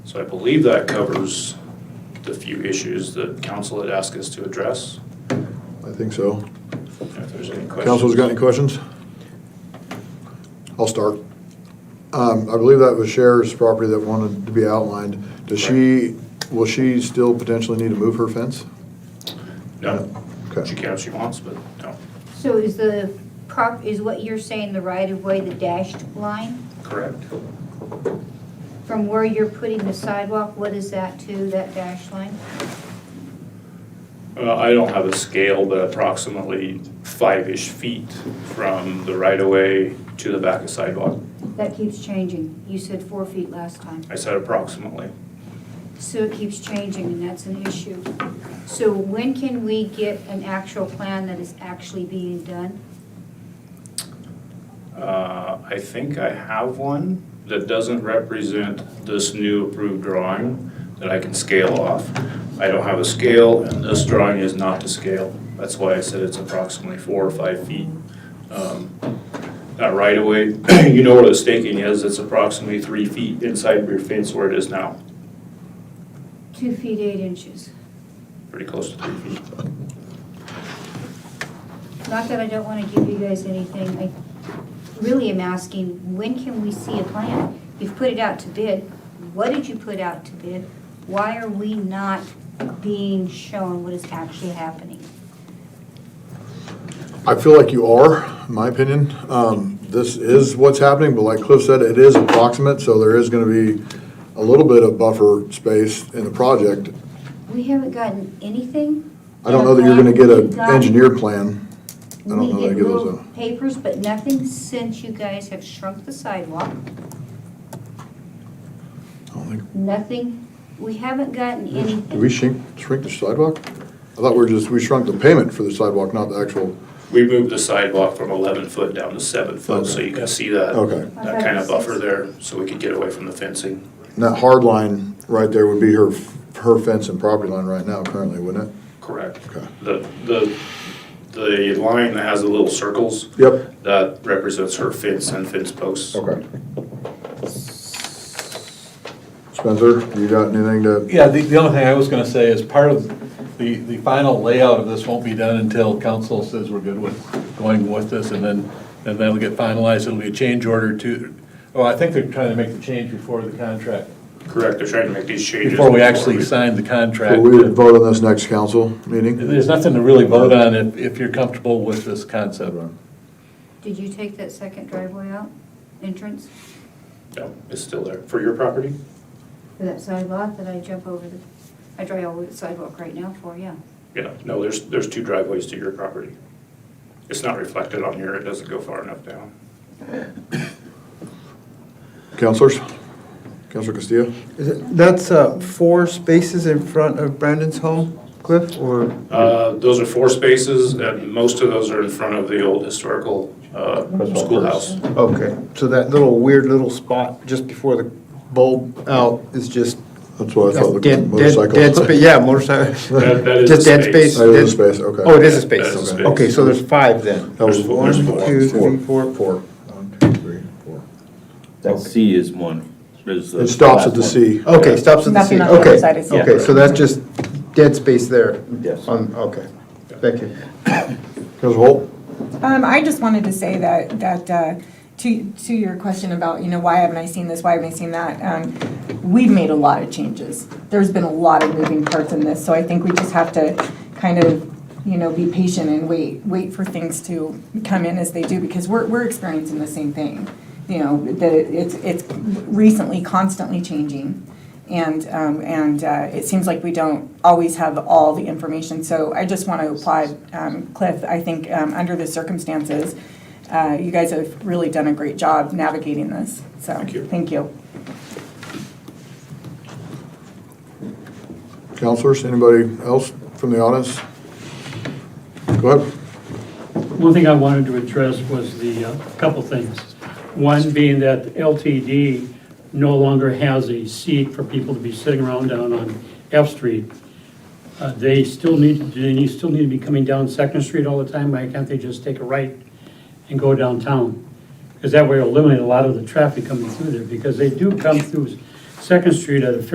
So I believe that covers the few issues that council had asked us to address. I think so. If there's any questions. Councilors got any questions? I'll start. Um, I believe that was Cher's property that wanted to be outlined. Does she, will she still potentially need to move her fence? No, she Okay, can if she wants, but no, So is the prop, is what you're saying the right of way, the dashed line? correct. From where you're putting the sidewalk, what is that to, that dashed line? Uh, I don't have a scale, but approximately five-ish feet from the right-of-way to the back of sidewalk. That keeps changing. You said four feet last time. I said approximately. So it keeps changing and that's an issue. So when can we get an actual plan that is actually being done? Uh, I think I have one that doesn't represent this new approved drawing that I can scale off. I don't have a scale, and this drawing is not to scale. That's why I said it's approximately four or five feet. Um, That right-of-way, you know where the staking is, it's approximately three feet inside of your fence where it is now, Two feet, eight inches. pretty close to three feet. Not that I don't want to give you guys anything, I really am asking, when can we see a plan? You've put it out to bid, what did you put out to bid? Why are we not being shown what is actually happening? I feel like you are, in my opinion. Um, This is what's happening, but like Cliff said, it is approximate, so there is gonna be a little bit of buffer space in the project. We haven't gotten anything. I don't know that you're gonna get We've an gotten- engineer plan. I don't know that We I get give those little a- papers, but nothing since you guys have shrunk the sidewalk, I don't think- nothing, we haven't gotten anything. Did we shrink, shrink the sidewalk? I thought we were just, we shrunk the payment for the sidewalk, not the actual, We moved the sidewalk from 11 foot down to 7 foot, so you can see that, Okay. that kind of buffer there, so we could get away from the fencing. and that hard line right there would be her, her fence and property line right now currently, wouldn't it? Correct. Okay. The, the, the line that has the little circles, Yep. that represents her fence and fence posts. Okay. Spencer, you got anything to, Yeah, the, the only thing I was gonna say is part of the, the final layout of this won't be done until council says we're good with going with this, and then, and then it'll get finalized, it'll be a change order to, oh, I think they're trying to make the change before the contract, Correct, they're trying to make these changes. before we actually we- sign the contract. Well, we would vote on this next council meeting? There's nothing to really vote on if, if you're comfortable with this concept. Did you take that second driveway out, entrance, No, it's still there. For your property? for that sidewalk that I jump over the, I drive over the sidewalk right now for, yeah? Yeah, no, there's, there's two driveways to your property. It's not reflected on here, it doesn't go far enough down. Counselors? Counselor Castillo? Is it- That's uh, four spaces in front of Brandon's home, Cliff, or Uh, Those are four spaces, and most of those are in front of the old historical uh, schoolhouse. okay, so that little weird little spot just before the bulb out is just That's what I thought. dead, the dead, motorcycle- dead space. Yeah, motorcycle. That- that is just a dead space. space. That is a dead- space, okay. Oh, it is a That space. is a okay. space. Okay, so there's five then. That was There's four- one, there's two, three, four. Four. One, two, three, four. That C is one. is the It stops at the last C. Okay, stops at the Nothing C. on the other Okay, side is- okay, so that's just dead space there. one. Yes. On okay, thank you. Counselor Holt? Um, I just wanted to say that, that, uh, to, to your question about, you know, why haven't I seen this, why haven't I seen that? Um, we've made a lot of changes. There's been a lot of moving parts in this, so I think we just have to kind of, you know, be patient and wait, wait for things to come in as they do, because we're, we're experiencing the same thing. You know, that it's, it's recently constantly changing. And, um, and, uh, it seems like we don't always have all the information, so I just want to applaud, um, Cliff, I think, um, under the circumstances, uh, you guys have really done a great job navigating this, so. Thank you. Thank you. Counselors, anybody else from the audience? Go ahead. One thing I wanted to address was the, uh, couple things. One being that LTD no longer has a seat for people to be sitting around down on F Street. Uh, They still need, to do they still need to be coming down Second Street all the time? Why can't they just take a right and go downtown? Because that way it'll eliminate a lot of the traffic coming through there, because they do come through Second Street at a fairly